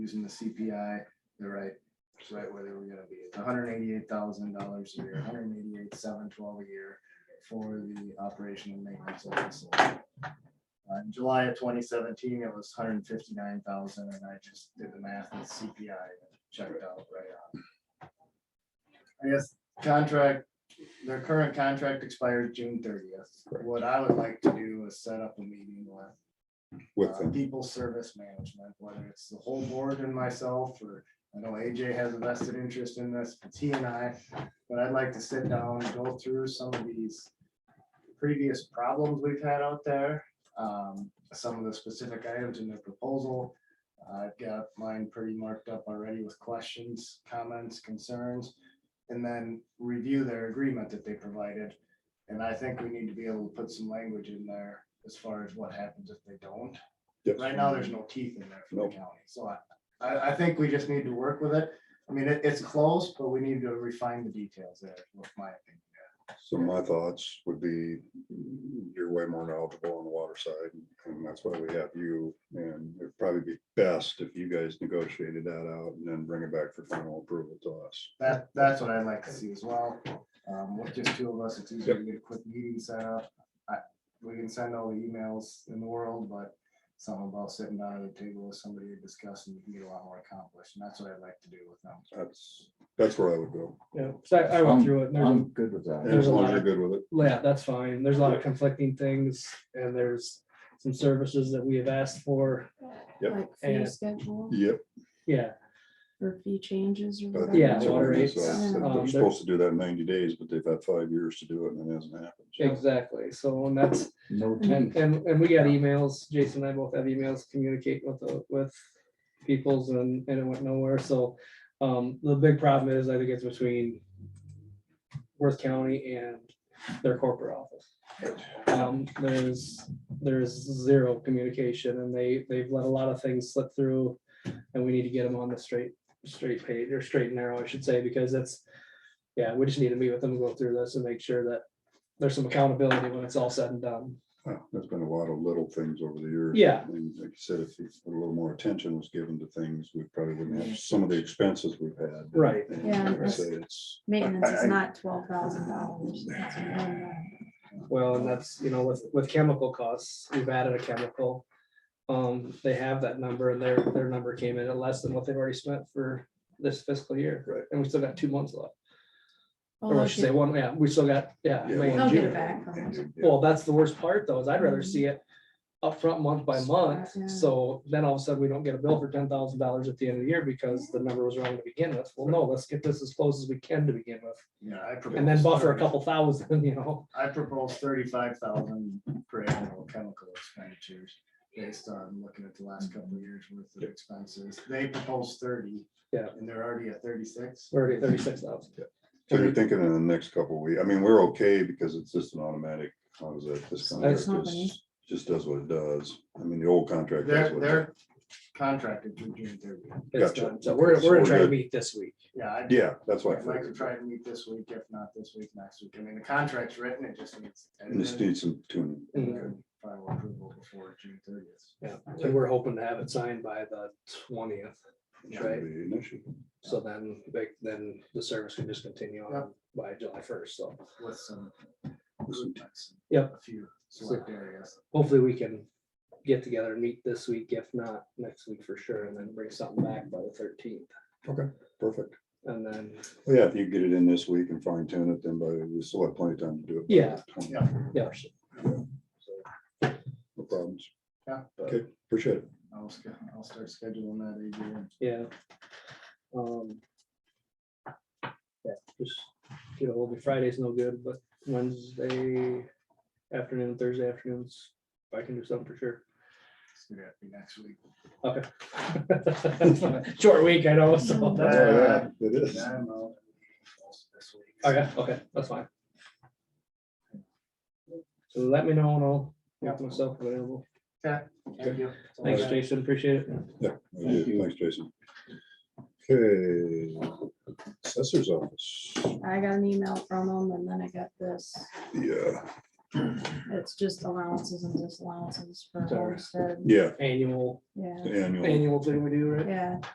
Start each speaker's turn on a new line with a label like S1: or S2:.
S1: using the CPI, the right, it's right where they were gonna be. It's hundred eighty-eight thousand dollars a year, 188,712 a year for the operation and maintenance of the facility. Uh, in July of twenty seventeen, it was 159,000, and I just did the math and CPI and checked out right on. I guess contract, their current contract expires June thirtieth. What I would like to do is set up a meeting with
S2: with
S1: uh,
S2: them.
S1: People service management, whether it's the whole board and myself, or I know AJ has a vested interest in this, it's he and I. But I'd like to sit down and go through some of these previous problems we've had out there. um, Some of the specific items in the proposal. I've got mine pretty marked up already with questions, comments, concerns. And then review their agreement that they provided. And I think we need to be able to put some language in there as far as what happens if they don't.
S2: Yes.
S1: Right now, there's no teeth in there for the
S2: Nope.
S1: county, so I, I, I think we just need to work with it. I mean, it, it's close, but we need to refine the details there, with my opinion.
S2: So my thoughts would be, you're way more knowledgeable on the water side, and that's why we have you. And it'd probably be best if you guys negotiated that out and then bring it back for final approval to us.
S1: That, that's what I'd like to see as well. Um, with just two of us, it's easier to get a quick meeting set up. I, we can send all the emails in the world, but something about sitting down at a table with somebody to discuss and you can get a lot more accomplished, and that's what I'd like to do with them.
S2: That's, that's where I would go.
S3: Yeah, so I, I went
S4: Um,
S3: through it. and there's a-
S4: I'm good with
S2: And
S4: that.
S3: There's
S2: as
S3: a
S2: long as
S3: lot
S2: you're
S3: of-
S2: good with it,
S3: Yeah, that's fine. There's a lot of conflicting things and there's some services that we have asked for.
S2: Yep.
S5: Like fee
S3: And-
S5: schedule
S2: yep.
S3: Yeah,
S5: or fee changes or
S2: I think
S5: whatever.
S3: Yeah,
S2: that's
S3: water
S2: everything.
S3: rates,
S2: So
S5: um,
S2: They're
S3: there's-
S2: supposed to do that in ninety days, but they've had five years to do it and it hasn't happened. So
S3: exactly. So and that's,
S4: No
S3: and,
S4: tension.
S3: and and we got emails, Jason and I both have emails communicate with, the- with peoples and, and it went nowhere. So um, the big problem is I think it's between Worth County and their corporate office. Um, there's, there's zero communication and they, they've let a lot of things slip through. And we need to get them on the straight, straight page or straight and narrow, I should say, because that's, yeah, we just need to meet with them, go through this and make sure that there's some accountability when it's all said and done.
S2: uh, There's been a lot of little things over the years.
S3: Yeah.
S2: And like you said, if you- a little more attention was given to things, we probably wouldn't have some of the expenses we've had.
S3: Right.
S2: And
S5: Yeah,
S2: like I
S5: that's-
S2: say, it's.
S5: Maintenance is
S2: I- I-
S5: not twelve thousand dollars.
S3: Well, and that's, you know, with, with chemical costs, we've added a chemical. Um, they have that number and their, their number came in at less than what they've already spent for this fiscal year.
S2: Right.
S3: And we still got two months left.
S5: Oh,
S3: Or I should say one, yeah, we still got, yeah.
S2: Yeah,
S3: May and
S2: well,
S5: They'll get
S3: June.
S5: it back from us.
S2: and you-
S3: Well, that's the worst part though, is I'd rather see it upfront month by month,
S5: Yeah.
S3: so then all of a sudden we don't get a bill for ten thousand dollars at the end of the year because the number was wrong to begin with. Well, no, let's get this as close as we can to begin with,
S1: Yeah, I propose.
S3: and then buffer a
S1: 30.
S3: couple thousand, you know?
S1: I propose thirty-five thousand per annual chemical expenditures based on looking at the last couple of years worth of expenses. They propose thirty.
S3: Yeah.
S1: And they're already at thirty-six.
S3: Already thirty-six thousand.
S2: So you're thinking in the next couple of weeks, I mean, we're okay because it's just an automatic, how is that, this contract
S5: Company.
S2: just, just does what it does. I mean, the old contract. does
S1: They're,
S2: what it-
S1: they're contracted through June thirtieth.
S3: It's
S2: Gotcha.
S3: done. So we're,
S2: So
S3: we're
S2: we're
S3: gonna try to
S2: good.
S3: meet this week.
S1: Yeah, I'd
S2: Yeah, that's why. I
S1: I'd like to
S2: figured.
S1: try and meet this week, if not this week, next week. I mean, the contract's written, it just needs.
S2: And this
S1: edited
S2: needs some tuning.
S1: and
S3: Mhm.
S1: then Final approval before June thirtieth.
S3: Yeah, and we're hoping to have it signed by the twentieth,
S2: It's
S3: Right.
S2: gonna be an issue.
S3: so then, they- then the service can just continue on by July first, so.
S1: With some. impacts in
S3: Yep.
S1: A few select areas.
S3: hopefully we can get together and meet this week, if not next week for sure, and then bring something back by the thirteenth.
S2: Perfect.
S3: And then,
S2: Well, Yeah, if you get it in this week and fine tune it, then by, we still have plenty of time to do it. by
S3: Yeah.
S2: the 20th.
S1: Yeah.
S3: yeah,
S2: No problems.
S1: Yeah.
S2: Okay, appreciate it.
S1: I'll, sch- I'll start scheduling that again.
S3: yeah. Um. Yeah, just, you know, will be Friday's no good, but Wednesday afternoon, Thursday afternoons, I can do something for sure.
S1: It's gonna have to be next week.
S3: Okay. Short week, I know, so. that's-
S1: Uh,
S2: Oh, yeah, It is.
S1: Yeah, I'm out this week.
S3: Oh, yeah, okay, that's fine. So let me know and I'll
S1: Yeah.
S3: make myself available.
S1: Thank you.
S3: Thanks, Jason, appreciate it.
S2: Yeah, I do. thanks, Jason. Okay, assessor's office,
S5: I got an email from them and then I got this.
S2: yeah,
S5: It's just allowances and disallowances for
S3: Sorry.
S5: homestead.
S2: yeah,
S3: Annual,
S5: Yeah,
S2: annual.
S3: annual thing we do, right?
S5: yeah.